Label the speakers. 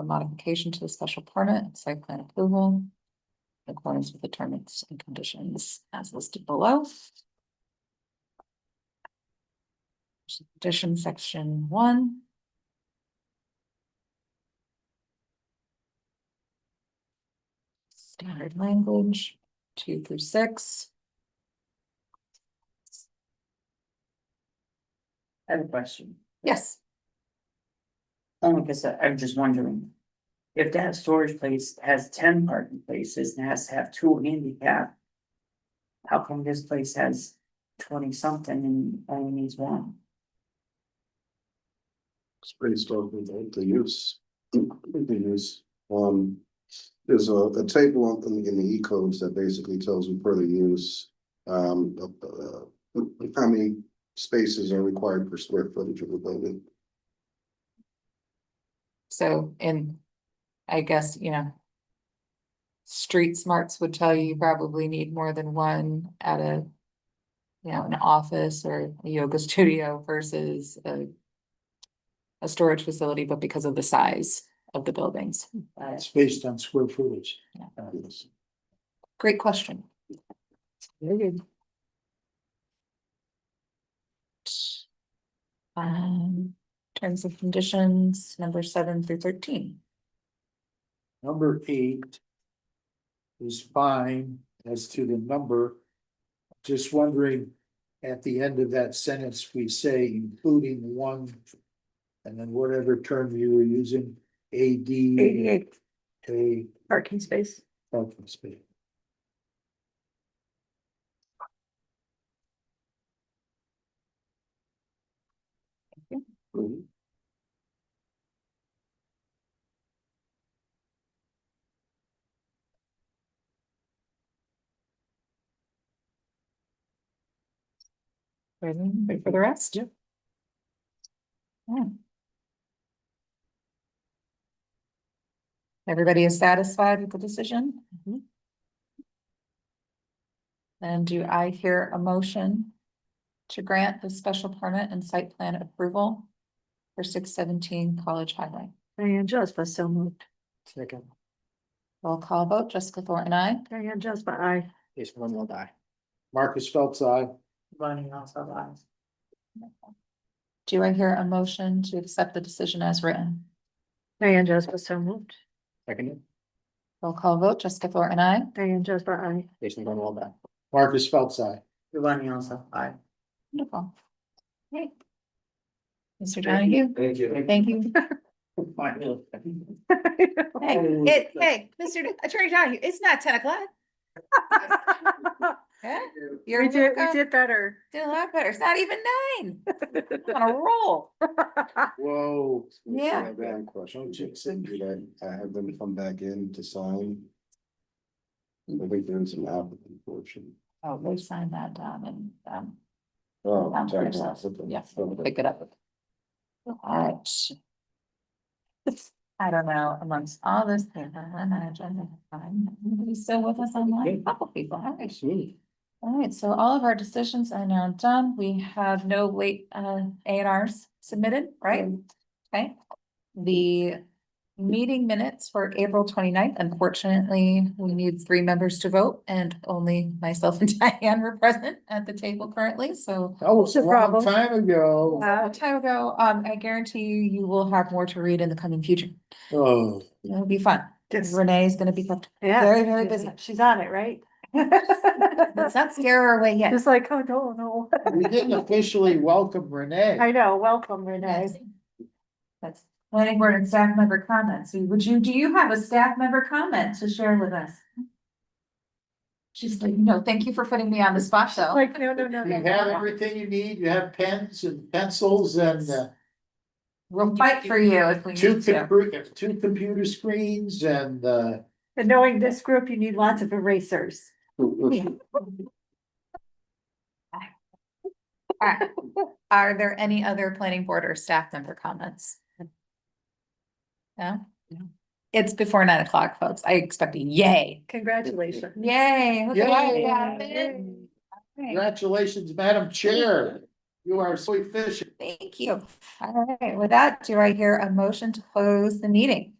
Speaker 1: for modification to the special permit and site plan approval. In accordance with the terms and conditions as listed below. Condition section one. Standard language, two through six.
Speaker 2: I have a question,
Speaker 1: Yes,
Speaker 2: only because I- I'm just wondering. If that storage place has ten parking places and has to have two handicap. How come this place has twenty something and only needs one?
Speaker 3: It's pretty historically linked to use, the use, um, there's a, a table on- in, the- in the E codes that basically tells you per the use. Um, uh, uh, how many spaces are required per square footage of the building.
Speaker 1: so and I guess, you know. Street smarts would tell you you probably need more than one at a. You know, an office or a yoga studio versus a. A storage facility, but because of the size of the buildings.
Speaker 2: Uh,
Speaker 4: It's based on square footage.
Speaker 3: Yes.
Speaker 1: Great question. Um, terms and conditions, number seven through thirteen.
Speaker 4: Number eight is fine as to the number. Just wondering, at the end of that sentence, we say including one, and then whatever term you were using, A D.
Speaker 2: Eighty-eight
Speaker 4: A
Speaker 2: parking space.
Speaker 4: parking space.
Speaker 3: Mhm.
Speaker 1: Ready for the rest? Hmm.
Speaker 4: Yep.
Speaker 1: Yeah. Everybody is satisfied with the decision?
Speaker 5: Mm-hmm.
Speaker 1: And do I hear a motion to grant the special permit and site plan approval for six seventeen College Highway?
Speaker 5: Diane Jasper, so moved.
Speaker 4: Second.
Speaker 1: Roll call vote, Jessica Thornton, I.
Speaker 5: Diane Jasper, I.
Speaker 4: Jason Momoa, die. Marcus Phelps, I.
Speaker 2: Running also lies.
Speaker 1: Do I hear a motion to accept the decision as written?
Speaker 5: Diane Jasper, so moved.
Speaker 4: Second.
Speaker 1: Roll call vote, Jessica Thornton, I.
Speaker 5: Diane Jasper, I.
Speaker 4: Jason Momoa, die. Marcus Phelps, I.
Speaker 2: Running also lies.
Speaker 1: Wonderful. Great. Mr. Donahue,
Speaker 3: Thank you.
Speaker 1: thank you. Hey,
Speaker 2: Oh,
Speaker 1: it,
Speaker 2: yeah.
Speaker 1: hey, Mr. D- Attorney Donahue, it's not ten o'clock. Yeah, You're
Speaker 5: We did, we
Speaker 1: welcome.
Speaker 5: did better.
Speaker 1: Doing a lot better. It's not even nine. On a roll.
Speaker 4: Whoa.
Speaker 1: Yeah.
Speaker 3: I have a question, Should I I have them come back in to sign. I think there's an applicant portion.
Speaker 1: Oh, we signed that down and, um,
Speaker 3: Oh,
Speaker 1: Um,
Speaker 3: sorry.
Speaker 1: there's yeah,
Speaker 3: Okay.
Speaker 1: pick it up. Alright. I don't know, amongst all this paper and our agenda, um, anybody still with us online? Couple people, alright. Alright, so all of our decisions are now done. We have no late, uh, A and Rs submitted, right? Okay. The meeting minutes for April 29th. Unfortunately, we need three members to vote and only myself and Diane were present at the table currently, so.
Speaker 4: That was a
Speaker 5: a
Speaker 4: long
Speaker 5: problem.
Speaker 4: time ago.
Speaker 1: A long time ago, um, I guarantee you, you will have more to read in the coming future.
Speaker 4: Oh.
Speaker 1: It'll be fun.
Speaker 5: Yes.
Speaker 1: Renee is gonna be kept,
Speaker 5: Yeah.
Speaker 1: Very, very
Speaker 5: she's-
Speaker 1: busy.
Speaker 5: She's on it, right?
Speaker 1: let's not scare her away yet.
Speaker 5: It's like, oh, no, no.
Speaker 4: We didn't officially welcome Renee.
Speaker 5: I know, welcome Renee.
Speaker 1: That's planning board and staff member comments. Would you, do you have a staff member comment to share with us? She's like, no, thank you for putting me on the spot though.
Speaker 5: Like, no, no, no,
Speaker 4: You
Speaker 5: no,
Speaker 4: have
Speaker 5: no.
Speaker 4: everything you need. You have pens and pencils and uh,
Speaker 1: We'll fight for you if we
Speaker 4: two,
Speaker 1: need to.
Speaker 4: compu- two computer screens and uh,
Speaker 5: And knowing this group, you need lots of erasers.
Speaker 1: Alright. Uh, Are there any other planning board or staff member comments? No? It's before nine o'clock, folks. I expect a yay.
Speaker 5: Congratulations.
Speaker 1: Yay. look at that,
Speaker 4: Yay.
Speaker 1: Gavin. Alright,
Speaker 4: congratulations, Madam Chair. You are so efficient.
Speaker 1: Thank you. All right, with that, do I hear a motion to close the meeting?